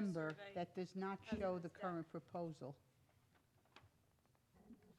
folder that does not show the current proposal.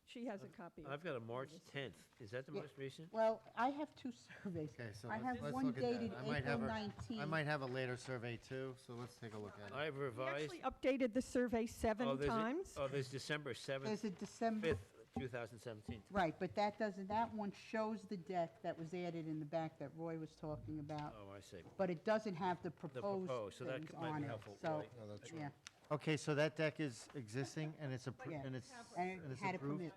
She has a Oh, copy. I've got a March 10th. Is that the Yeah. most recent? Well, I have two surveys. Okay, so I let's- have let's one look at that. dated I might April have a- 19. I might have a later survey too, so let's take a look at it. I've We revised. actually updated the survey oh, seven there's a- times. Oh, there's December 7th, There's a December, 5th, 2017. right, but that doesn't, that one shows the deck that was added in the back that Roy was talking about, Oh, I see. but it doesn't have the The proposed proposed, so that things c- might Oh, on be it. helpful. So, right. yeah, Okay, so that deck is existing and it's approved, Yeah. and it's, and and it it's had a approved? permit.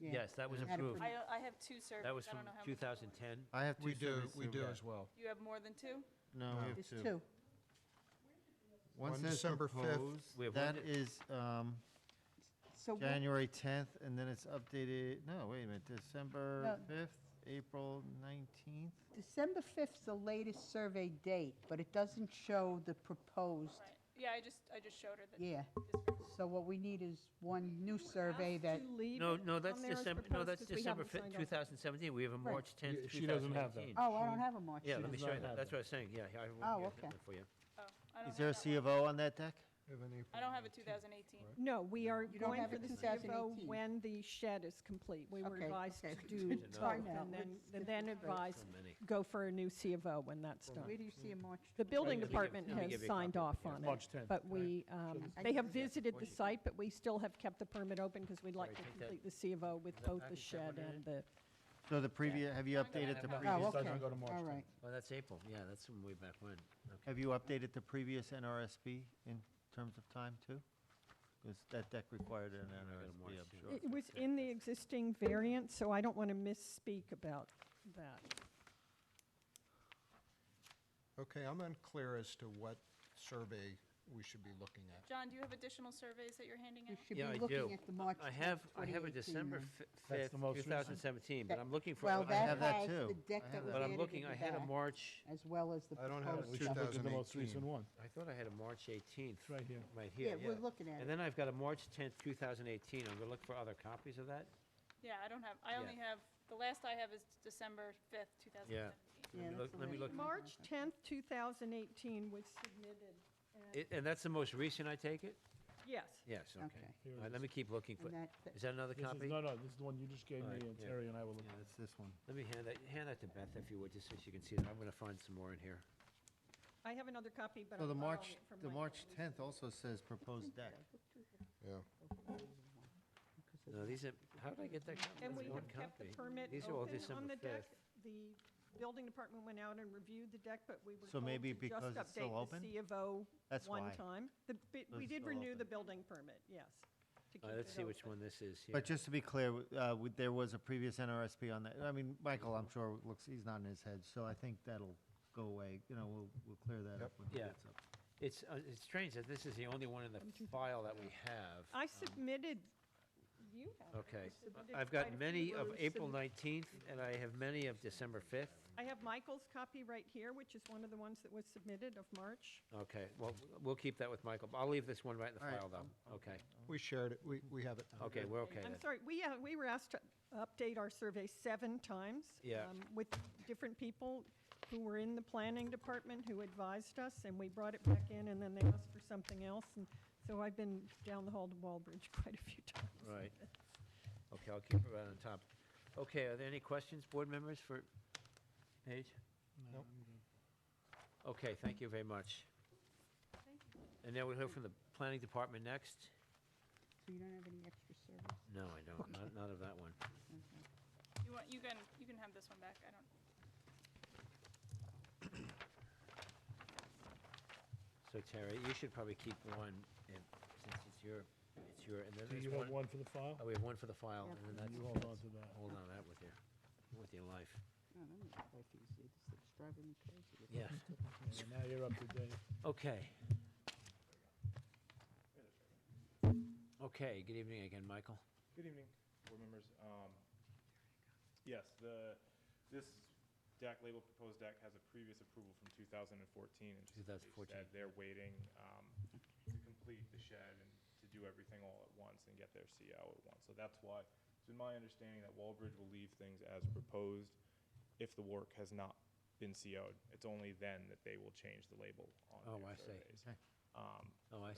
yeah. Yes, that was Had a approved. permit. I, I have two surveys. That was I from don't know how many- 2010. I have two We do, surveys we too. do as well. You have more than two? No, we There's have two. two. One One says December 5th. proposed, We have one that that- is, um, So what- January tenth, and then it's updated, no, wait a minute, December No. fifth, April nineteenth? December 5th is the latest survey date, but it doesn't show the proposed, Right. Yeah, I just, I just showed her the. yeah. So what we need is one new survey that, To leave No, it no, on that's there as December, no, proposed that's 'cause we December haven't 5th, signed off. 2017. We have a March 10th, She doesn't have that. 2018. oh, I don't have a March. Yeah, She let me does show you not that. have That's that. what I was saying. Yeah, I Oh, will get okay. that for you. Oh, I don't Is there a have that C one. of O on that deck? We have an April I don't have a 19th. 2018. No, we are You don't going have for it the 2018. CFO when the shed is complete. We were Okay, advised okay. to Good do to know. both Now, and then, let's and get then this straight. advised, So many. go for a new CFO when that's Where done. do you see a March? The building give you- department let me give has you a signed copy. off on it, March 10th. but we, um, I they can have do that visited for the you. site, but we still have kept the permit open because we'd like Sorry, to take that- complete the CFO with that both back the and put shed it in. and the, So the previous, have you I'm gonna updated the have that. Oh, previous, okay, doesn't go to March all 10th. right. Oh, that's April. Yeah, that's from way back when. Okay. have you updated the previous NRSP in terms of time too? Because that deck required an I got a March NRSP, I'm 10th. sure. it was Okay. in the existing variant, so I don't want to misspeak about that. Okay, I'm unclear as to what survey we should be looking at. John, do you have additional surveys that you're handing You out? should Yeah, I be do. looking at the March. I have, I have a 2018 December one. fi- That's 5th, the most recent. 2017, but That- I'm looking for. Well, I that have that has too. the deck I that have was But added I'm in looking, the I had a back, March, As well as the I don't have proposed a stuff. Look at the most 2018. recent one. I thought I had a March 18th. right here. Right Yeah, here, yeah. we're looking at And it. then I've got a March 10th, 2018. I'm going to look for other copies of that. Yeah, I don't have, I Yeah. only have, the last I have is December 5th, 2017. Let Yeah, me that's look- the Let me last look, one. March 10th, 2018 was submitted. and- I- and that's the most recent, I take it? Yes. Yes, okay. Okay. Here All it right, is. let me keep looking for, And that- that- is that another This is- copy? No, no, this is the one you just gave me, Alright, and yeah. Terry and I will look Yeah, at. That's this one. Let me hand that, hand that to Beth if you would, just so she can see it. I'm going to find some more in here. I have another copy, but So I'm the borrowing March, it from the my March colleague. tenth also says proposed deck. Yeah. No, these are, how did I get that copy? And That's we one have kept the copy. permit These are all open on December the deck. 5th. The building department went out and reviewed the deck, but we were So told maybe to because it's just still update open? the C of O That's one why. time. The bit- So We it's did still renew the open. building permit, yes. to Uh, keep Let's it see which open. one this is here. But just to be clear, w- uh, w- there was a previous NRSP on that. I mean, Michael, I'm sure, looks, he's nodding his head, so I think that'll go away. You know, we'll, we'll clear that up Yep. when he Yeah. gets up. It's, uh, it's strange that this is the only one in the file that we have. I Um, submitted, you have. it. I Okay, submitted I- I've quite got a many few of were April submi- 19th, and I have many of December 5th. I have Michael's copy right here, which is one of the ones that was submitted of March. Okay, well, we'll keep that with Michael. I'll leave this one right in the All right, file, though. Okay, We shared it, we, we have it. okay, we're okay then. I'm sorry, we, uh, we were asked to update our survey seven times. Yeah. um, With different people who were in the planning department who advised us, and we brought it back in, and then they asked for something else. And so I've been down the hall to Walbridge quite a few times. Right. Okay, I'll keep it right on top. Okay, are there any questions, board members, for Paige? Nope. Okay, thank you very much. And now we'll hear from the planning department next? So you don't have any extra Oh, surveys? No, I don't, not, not of that one. You want, you can, you can have this one back, I don't. So Terry, you should probably keep one, and since it's your, it's your, and then Do there's you one. have one for the file? Oh, we have one for the file, Yep. and then You that's, hold on to that. hold on, that with your, with your life. No, that one's quite easy. This thing's driving me crazy. Yeah, Yeah, Now you're up to date. okay. Okay, good evening again, Michael. Good evening. board members. Um, Yes, the, this deck, label proposed deck, has a previous approval from 2014. and just as 2014. Paige said, They're waiting um, to complete the shed and to do everything all at once and get their CO at once. So that's why, it's been my understanding that Wallbridge will leave things as proposed if the work has not been CO'd. It's only then that they will change the label Oh, on I see. their surveys. Okay. Um, Oh, I